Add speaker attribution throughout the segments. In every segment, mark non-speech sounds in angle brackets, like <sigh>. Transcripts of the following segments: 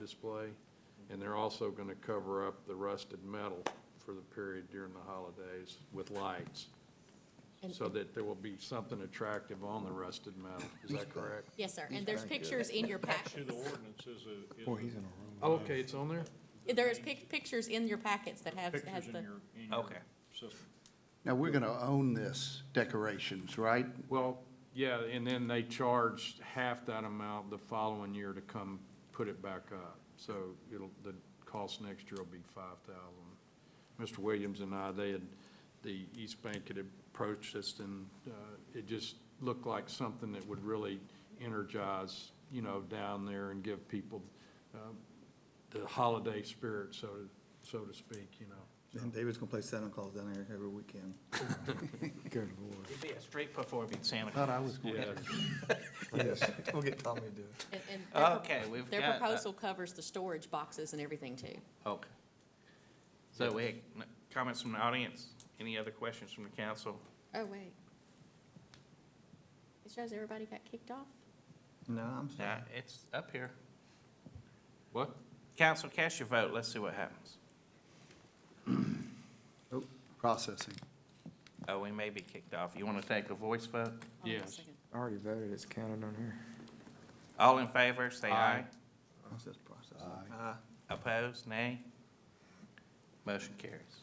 Speaker 1: display, and they're also going to cover up the rusted metal for the period during the holidays with lights,
Speaker 2: And-
Speaker 1: so that there will be something attractive on the rusted metal. Is that correct?
Speaker 2: Yes, sir, and there's pictures
Speaker 3: <laughs>
Speaker 2: in your
Speaker 3: To
Speaker 2: packet.
Speaker 3: the ordinance is a, is
Speaker 4: Boy,
Speaker 3: a-
Speaker 4: he's in a room.
Speaker 1: Oh, Okay, it's on there?
Speaker 2: There is pic- pictures in your packets that have, has
Speaker 3: pictures in
Speaker 2: the,
Speaker 3: your, in your
Speaker 5: Okay.
Speaker 3: system.
Speaker 6: Now, we're going to own this decorations, right?
Speaker 1: Well, yeah, and then they charge half that amount the following year to come put it back up. So it'll, the cost next year will be five thousand. Mr. Williams and I, they had, the East Bank had approached us and, uh, it just looked like something that would really energize, you know, down there and give people, um, the holiday spirit, so to, so to speak, you know.
Speaker 4: And David's gonna play Santa Claus down there every weekend. <laughs> Good lord.
Speaker 5: It'd be a straight performing Santa
Speaker 4: Uh,
Speaker 6: Thought I
Speaker 5: Claus.
Speaker 6: was going
Speaker 4: <laughs>
Speaker 6: to.
Speaker 4: We'll get Tommy to do it.
Speaker 2: and- and
Speaker 3: Oh,
Speaker 2: their pro-
Speaker 5: Okay, we've got.
Speaker 2: their
Speaker 5: uh,
Speaker 2: proposal covers the storage boxes and everything too.
Speaker 5: Okay. So we had n- comments from the audience. Any other questions from the council?
Speaker 2: Oh, wait. It shows everybody got kicked off?
Speaker 4: No, I'm sorry.
Speaker 5: Nah, it's up here.
Speaker 1: What?
Speaker 5: Council, cast your vote. Let's see what happens.
Speaker 6: Oh, Processing.
Speaker 5: Oh, we may be kicked off. You want to take a voice vote?
Speaker 2: Hold on a
Speaker 1: Yes.
Speaker 2: second.
Speaker 7: I already voted, it's counted on here.
Speaker 5: All in favor, say aye.
Speaker 1: Aye.
Speaker 4: Process, process. Ah.
Speaker 6: Aye.
Speaker 5: Opposed, nay? Motion carries.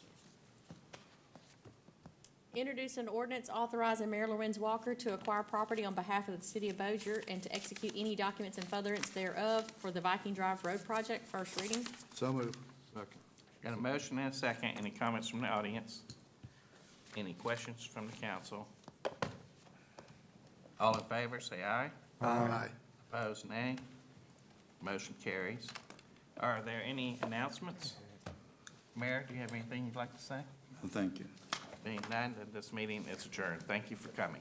Speaker 2: Introduce an ordinance authorizing Mayor Lorenz Walker to acquire property on behalf of the city of Bossier and to execute any documents in furtherance thereof for the Viking Drive Road Project, first reading.
Speaker 6: So moved.
Speaker 1: Second.
Speaker 5: Got a motion and a second. Any comments from the audience? Any questions from the council? All in favor, say aye.
Speaker 6: Aye.
Speaker 5: Opposed, nay. Motion carries. Are there any announcements? Mayor, do you have anything you'd like to say?
Speaker 6: Thank you.
Speaker 5: Being none, then this meeting is adjourned. Thank you for coming.